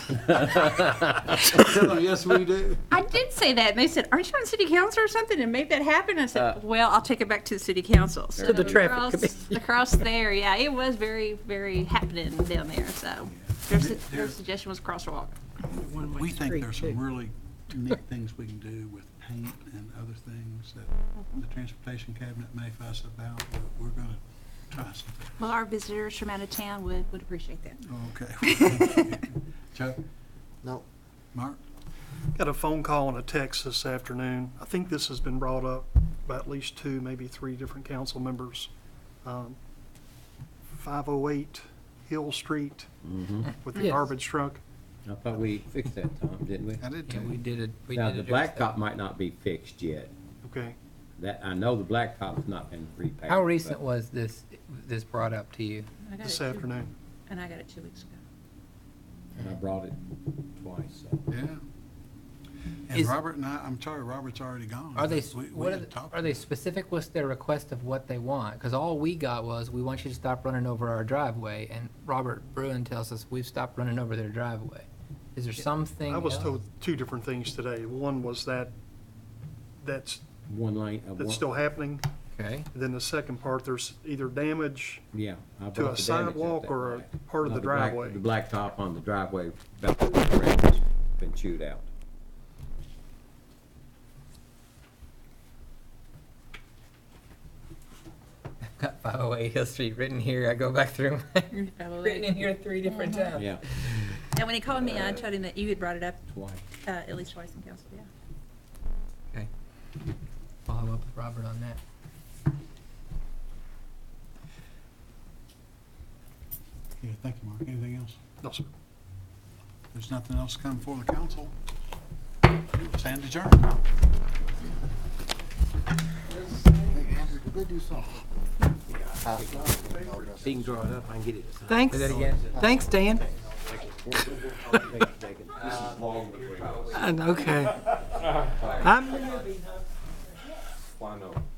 Tell them, Oh, yes, we do. I did say that, and they said, "Aren't you on city council or something?" And made that happen. I said, "Well, I'll take it back to the city council." So Uh, To the traffic across, committee. across there, yeah, it was very, very happening down there. So their, su- their suggestion was crosswalk. We think street, there's too. some really neat things we can do with paint and other things that the transportation cabinet may fuss about, but we're gonna try something. Well, our visitors from out of town would, would appreciate that. Okay. Chuck, No, Mark, Got a phone call and a text this afternoon. I think this has been brought up by at least two, maybe three different council members. Um, 508 Hill Street with the Yes. garbage truck. I thought we fixed that, Tom, didn't we? I did Yeah, we too. did it, we Now, did the address blacktop that. might not be fixed yet. Okay. That, I know the blacktop's not been repaved. How but- recent was this, this brought up to you? Mm-hmm. I got This it two- afternoon. And I got it two weeks ago. And I brought it twice, so. Yeah. And Is- Robert and I, I'm sorry, Robert's already gone. Are they, but we- we what are, had the- talked are they about it. specific with their request of what they want? Because all we got was, we want you to stop running over our driveway, and Robert Bruin tells us, we've stopped running over their driveway. Is there something I was else? told two different things today. One was that, that's, One lane, uh, one, that's still happening. Okay, And Then the second part, there's either damage yeah. I brought to a the damage up sidewalk that or a way. part of No, the black- driveway. The blacktop on the driveway, about the correct, has been chewed out. I've got five oh eight Hill Street written here, I go back through, my- written in here three different times. Yeah, And when he called me, I told him that you had brought it up twice. uh, at least twice in council. Yeah. Okay. Follow up with Robert on that. Yeah, thank you, Mark. Anything else? No, sir. There's nothing else to come before the council. Stand adjourned. go do something. He can draw it up, I can get it. Thanks. Say that again. Thanks, Dan. And, Uh, okay. I'm, Why not?